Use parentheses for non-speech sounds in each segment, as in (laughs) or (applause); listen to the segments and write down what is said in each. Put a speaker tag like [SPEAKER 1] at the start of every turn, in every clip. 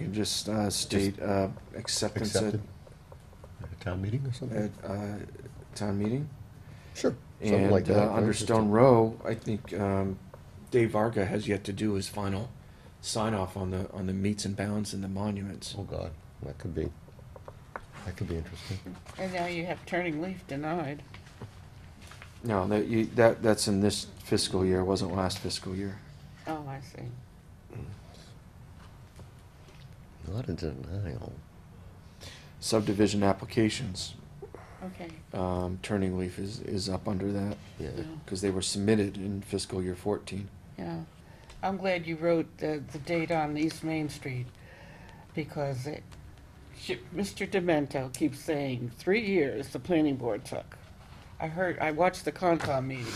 [SPEAKER 1] could just uh, state uh, acceptance at,
[SPEAKER 2] accepted at a town meeting or something?
[SPEAKER 1] at uh, town meeting.
[SPEAKER 2] Sure. Something
[SPEAKER 1] And
[SPEAKER 2] like that.
[SPEAKER 1] uh, under
[SPEAKER 2] right? Just to-
[SPEAKER 1] Stone Row, I think um, Dave Varga has yet to do his final sign off on the, on the meets and bounds and the monuments.
[SPEAKER 2] Oh, God, that could be, that could be interesting.
[SPEAKER 3] And now you have turning leaf denied.
[SPEAKER 1] No, that, you, that, that's in this fiscal year, wasn't last fiscal year.
[SPEAKER 3] Oh, I see.
[SPEAKER 2] Not a denial.
[SPEAKER 1] Subdivision applications,
[SPEAKER 3] Okay.
[SPEAKER 1] um, Turning Leaf is, is up under that,
[SPEAKER 2] Yeah,
[SPEAKER 3] Yeah.
[SPEAKER 1] because they were submitted in fiscal year fourteen.
[SPEAKER 3] yeah. I'm glad you wrote the, the date on East Main Street because it, sh- Mr. Demento keeps saying three years the planning board took. I heard, I watched the Concom meeting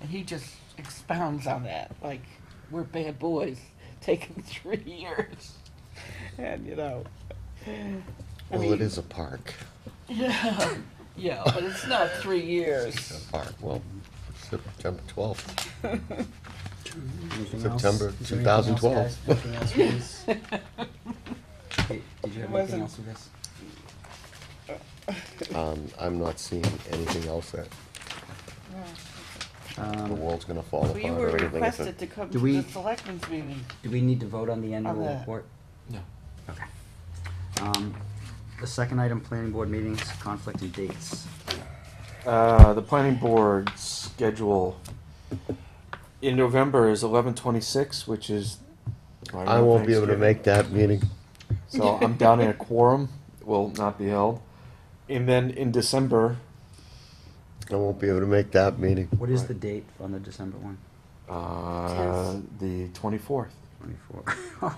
[SPEAKER 3] and he just expounds on that like we're bad boys (laughs) taking three years. And you know. I
[SPEAKER 2] well, it
[SPEAKER 3] mean-
[SPEAKER 2] is a park,
[SPEAKER 3] Yeah, (laughs) yeah, but it's not three
[SPEAKER 2] a
[SPEAKER 3] years.
[SPEAKER 2] park, well, September (laughs) twelfth,
[SPEAKER 4] Anything else?
[SPEAKER 2] September
[SPEAKER 4] Is there anything
[SPEAKER 2] 2012.
[SPEAKER 4] else, guys? Anything else with this? Did did you have
[SPEAKER 3] Wasn't-
[SPEAKER 4] anything else with this?
[SPEAKER 2] um, I'm not seeing anything else that the
[SPEAKER 4] Um,
[SPEAKER 2] world's gonna fall apart
[SPEAKER 3] We were
[SPEAKER 2] or anything. It's Oh, a-
[SPEAKER 3] requested to come
[SPEAKER 4] Do
[SPEAKER 3] to
[SPEAKER 4] we-
[SPEAKER 3] the selectmen's meeting.
[SPEAKER 4] Do we need to vote on the annual
[SPEAKER 3] the-
[SPEAKER 4] report?
[SPEAKER 1] No.
[SPEAKER 4] Okay. Um, The second item, planning board meetings, conflict and dates.
[SPEAKER 1] Uh, the planning board schedule in November is eleven twenty-six, which is.
[SPEAKER 2] I won't be able to make that meeting.
[SPEAKER 1] So I'm down in a quorum, will not be held. And then in December,
[SPEAKER 2] I won't be able to make that meeting.
[SPEAKER 4] What is the date on the December one?
[SPEAKER 1] uh, the twenty-fourth. (laughs)
[SPEAKER 4] Twenty-four.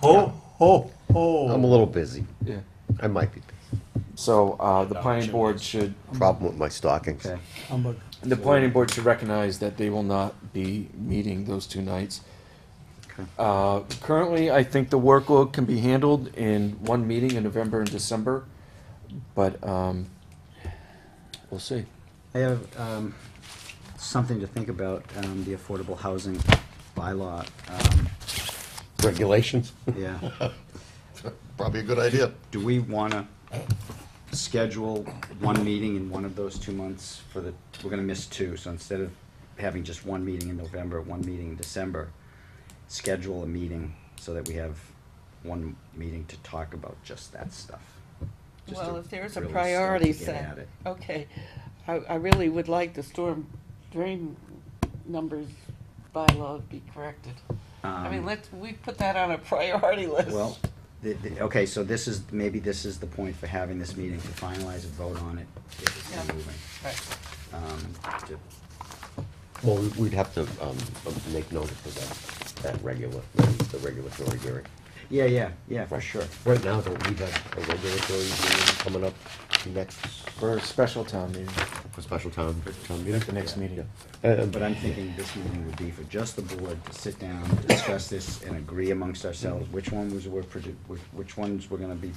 [SPEAKER 2] Oh, ho, ho. I'm a little busy.
[SPEAKER 1] Yeah.
[SPEAKER 2] I might be. busy.
[SPEAKER 1] So, uh, the planning board should,
[SPEAKER 3] Um,
[SPEAKER 2] Problem with my stockings.
[SPEAKER 4] Okay,
[SPEAKER 1] the planning board should recognize that they will not be meeting those two nights.
[SPEAKER 4] okay.
[SPEAKER 1] Uh, currently, I think the workload can be handled in one meeting in November and December, but, um, we'll see.
[SPEAKER 4] I have um, something to think about, um, the affordable housing bylaw. Um,
[SPEAKER 2] Regulations, (laughs)
[SPEAKER 4] Yeah.
[SPEAKER 2] probably a good idea.
[SPEAKER 4] Do we want to schedule one meeting in one of those two months for the, we're going to miss two, so instead of having just one meeting in November, one meeting in December, schedule a meeting so that we have one meeting to talk about just that stuff. Just
[SPEAKER 3] Well,
[SPEAKER 4] to
[SPEAKER 3] if there's a
[SPEAKER 4] really
[SPEAKER 3] priority
[SPEAKER 4] start to get at
[SPEAKER 3] set,
[SPEAKER 4] it.
[SPEAKER 3] okay. I, I really would like the storm drain numbers bylaw to be corrected. I mean,
[SPEAKER 4] Um,
[SPEAKER 3] let's, we put that on a priority list.
[SPEAKER 4] Well, the, the, okay, so this is, maybe this is the point for having this meeting to finalize a vote on it, get this thing
[SPEAKER 3] Yeah.
[SPEAKER 4] moving.
[SPEAKER 3] Right.
[SPEAKER 4] Um, to-
[SPEAKER 2] Well, we- we'd have to um, make notice of that, that regular, the regulatory hearing.
[SPEAKER 4] Yeah, yeah, yeah, for sure.
[SPEAKER 2] Right now, don't we have a regulatory hearing coming up next,
[SPEAKER 1] For a special town meeting,
[SPEAKER 2] for special town, town meeting?
[SPEAKER 1] the next meeting.
[SPEAKER 4] But I'm thinking this meeting would be for just the board to sit down, discuss this, and agree amongst ourselves which one was we're produ- which, which ones we're gonna be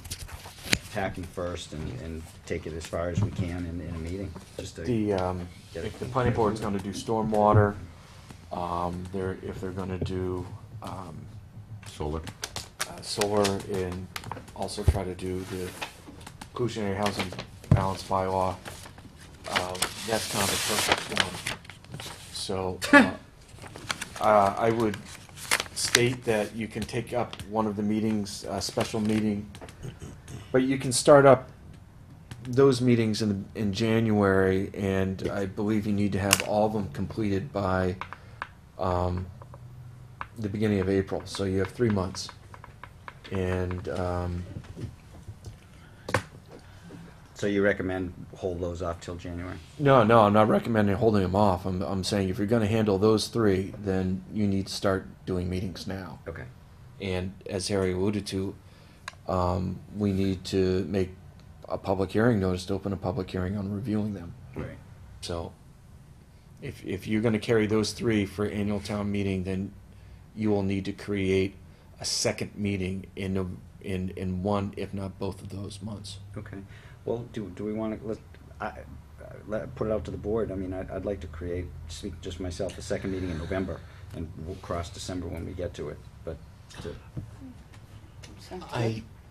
[SPEAKER 4] attacking first and, and take it as far as we can in, in a meeting, just to.
[SPEAKER 1] The, um,
[SPEAKER 4] Get
[SPEAKER 1] if
[SPEAKER 4] it.
[SPEAKER 1] the planning board's gonna do stormwater, um, they're, if they're gonna do, um,
[SPEAKER 2] Solar.
[SPEAKER 1] uh, solar and also try to do the inclusionary housing balance bylaw, um, that's kind of a perfect one. So, uh, (coughs) uh, I would state that you can take up one of the meetings, a special meeting, but you can start up those meetings in, in January, and I believe you need to have all of them completed by, um, the beginning of April, so you have three months. And, um,
[SPEAKER 4] So you recommend hold those off till January?
[SPEAKER 1] no, no, I'm not recommending holding them off. I'm, I'm saying if you're gonna handle those three, then you need to start doing meetings now.
[SPEAKER 4] Okay,
[SPEAKER 1] And as Harry alluded to, um, we need to make a public hearing notice to open a public hearing on reviewing them.
[SPEAKER 4] great.
[SPEAKER 1] So if, if you're gonna carry those three for annual town meeting, then you will need to create a second meeting in, Nov- in, in one, if not both of those months.
[SPEAKER 4] Okay, well, do, do we wanna, let, I, I- let, put it out to the board, I mean, I'd, I'd like to create, speak just myself, a second meeting in November, and we'll cross December when we get to it, but to
[SPEAKER 3] Sounds
[SPEAKER 2] I,
[SPEAKER 3] good.